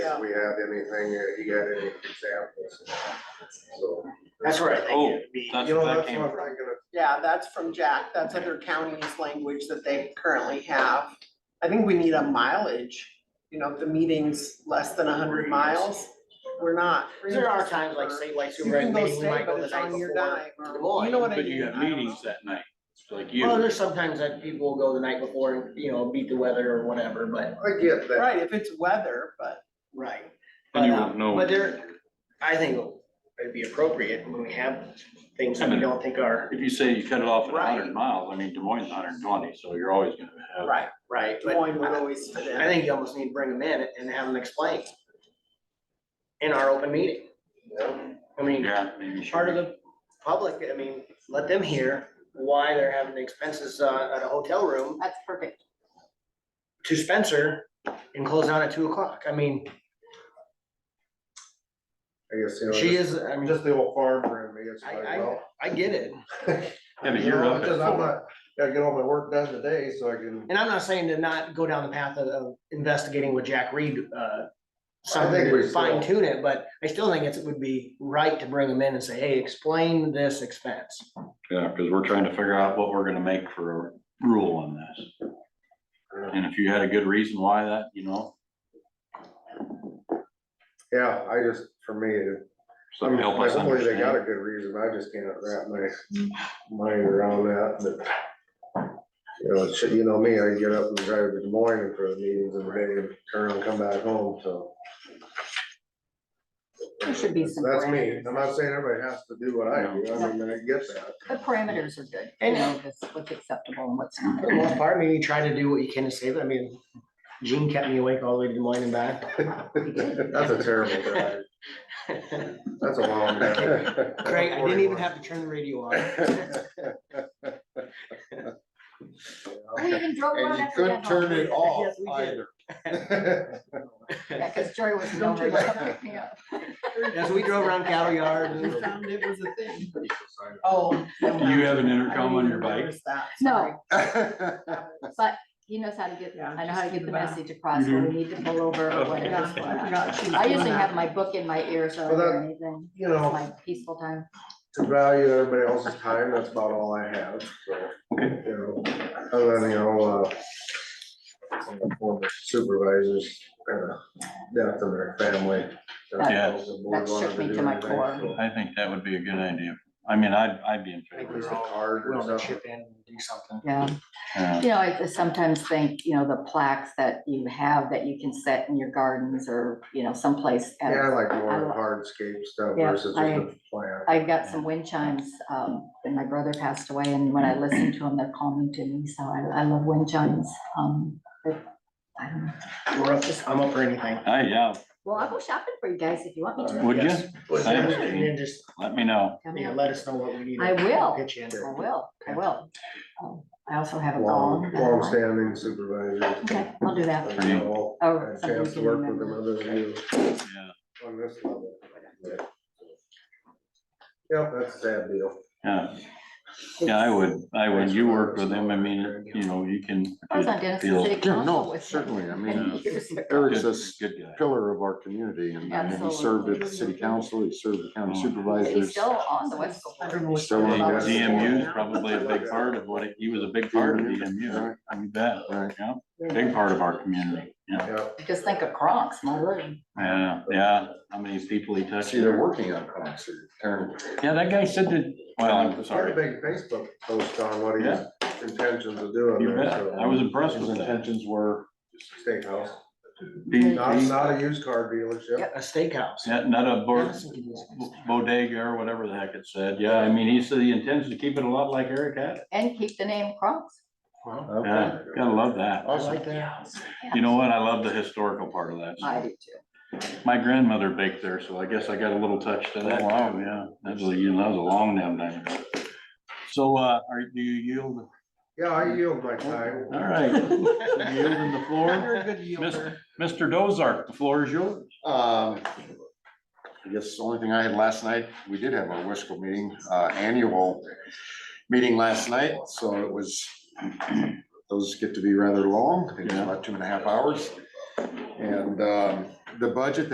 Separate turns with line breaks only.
if we have anything, uh, he got any examples. So,
That's where I think
Oh,
it'd be.
that's
you know,
where that
that's
came
what I'm
from.
thinking of.
Yeah, that's from Jack. That's other counties' language that they currently have. I think we need a mileage, you know, if the meeting's less than hundred miles, we're not.
There are times like say like supervisor meeting, we might go the night before to Des Moines.
You know what I mean?
But you got
I don't know.
meetings that night, like
Well,
you,
there's sometimes that people will go the night before and, you know, beat the weather or whatever, but.
I get that.
Right, if it's weather, but
Right.
and you
But, um,
wouldn't know.
But there, I think it'd be appropriate when we have things that we don't think are
If you say you cut it off at
Right.
hundred miles, I mean, Des Moines is hundred and twenty, so you're always gonna have.
right,
right,
Des
but
Moines would
I
always fit
I
in.
think you almost need to bring them in and have them explain. In our open meeting. I mean,
Yeah, maybe.
part of the public, I mean, let them hear why they're having the expenses uh, at a hotel room
That's perfect.
to Spencer and close down at two o'clock. I mean,
I guess, you know,
she
just,
is, I mean,
just the old farmer in me, it's
I,
like,
I,
well.
I get it.
Yeah, but
you
you're
know,
up at
just I'm
four.
not- Gotta get all my work done today, so I can,
And I'm not saying to not go down the path of- of investigating with Jack Reed, uh, something
we
to
still-
fine tune it, but I still think it's, it would be right to bring them in and say, hey, explain this expense.
Yeah, because we're trying to figure out what we're gonna make for a rule on this. And if you had a good reason why that, you know,
yeah, I just, for me, it
so help us
Hopefully they got a
understand.
good reason, I just can't wrap my mind around that, but. You know, it should- you know me, I get up and drive to Des Moines for the meetings and ready to turn around and come back home, so.
There should be some
That's me,
parameters.
I'm not saying everybody has to do what I do, I mean, I get that.
The parameters are good, you
And-
know, just what's acceptable and what's not.
For the most part, I mean, you try to do what you can to save it. I mean, Gene kept me awake all the way to Des Moines and back.
That's a terrible drive, that's a long.
Craig, I didn't even have to turn the radio on.
We even drove around
And you
after
couldn't
that.
turn it off
Yes, we did.
either.
Yeah, cause Joy was
Don't
nowhere
you-
to come pick me up.
As we drove around cattle yard
We
and
found it was a thing. Oh.
Do you have an intercom on your bike?
No,
That's
but he knows how to get,
Yeah,
I know
just
how to
to
get
the
the
back.
message across, when
Mm-hmm.
we need to pull over or
Okay.
whatever's going on. I
I
usually have my book in my ear, so I
Well,
don't hear
that-
anything.
You
It's
know.
my peaceful time.
to value everybody else's time, that's about all I have, so. you know, Other than, you know, uh, some of the former supervisors, uh, death of their family.
Yeah.
That shook me to my core.
I think that would be a good idea. I mean, I'd, I'd be in favor.
Use a card or
we'll have to
something.
chip in and do something.
Yeah,
Yeah.
you know, I just sometimes think, you know, the plaques that you have that you can set in your gardens or, you know, someplace. at-
Yeah, I like
I
more
lo-
hardscape stuff
Yeah,
versus just a plan.
I've got some wind chimes, um, and my brother passed away, and when I listen to them, they're calming to me, so I, I love wind chimes, um, but I don't know.
We're up, I'm up for anything.
Hey, yeah,
Well, I'll go shopping for you guys if you want me to.
would you?
Yes. And then just,
Let me know.
Come
yeah,
here.
let us know what we need. to
I will.
Get you in
I
there.
will, I will. Um, I also have a
Long,
gong. that I like.
longstanding supervisors.
Okay, I'll do that.
You know,
Oh,
had a
something
chance to
you
work with them
remember.
other than you
Yeah.
on this level. Yeah. Yep, that's a sad deal.
Yeah, yeah, I would, I would. You work with them. I mean, you know, you can.
I was on Denison
feel-
City
Yeah, no,
Council with. him
certainly, I mean,
many
uh,
years ago.
Eric's a s-
Good guy.
pillar of our community and I mean, he served at the city council, he served the
Oh.
county
But He's
supervisors.
still on the West Board.
Still on
And
that.
DMU is probably a big part of what, it- he was a big part of DMU, you bet,
Right.
yeah, big part of our community, yeah.
Yep.
Just think of Crocs, my word.
Yeah, yeah, how many people he touched.
See, they're working on concert, Aaron,
Yeah, that guy said that, well, I'm
Had a
sorry,
big Facebook post on what his intentions of doing.
you
there,
bet,
so- um,
I was impressed
his
with that.
intentions were,
Steakhouse,
He- he-
not, not a used car dealership.
A steakhouse.
Not not a bar-
Madison could use it.
bodega or whatever the heck it said, yeah, I mean, he said he intends to keep it a lot like Eric had. it.
And keep the name Crocs.
Wow.
okay.
Yeah, gotta love that,
I
Awesome.
like that.
you know what, I love the historical part of that,
I do Oh, too.
my grandmother baked there, so I guess I got a little touch to that, wow, yeah, that was, a- you know, that was a long damn time ago. So, uh, are, do you yield?
Yeah, I yield my time.
All right, yielding the
You're
floor.
a good yielder.
Mr. Dozark, the floor is yours.
Um, I guess the only thing I had last night, we did have our WESCO meeting, uh, annual meeting last night, so it was, those get to be rather long, I think it's about two and a half hours. And um, the budget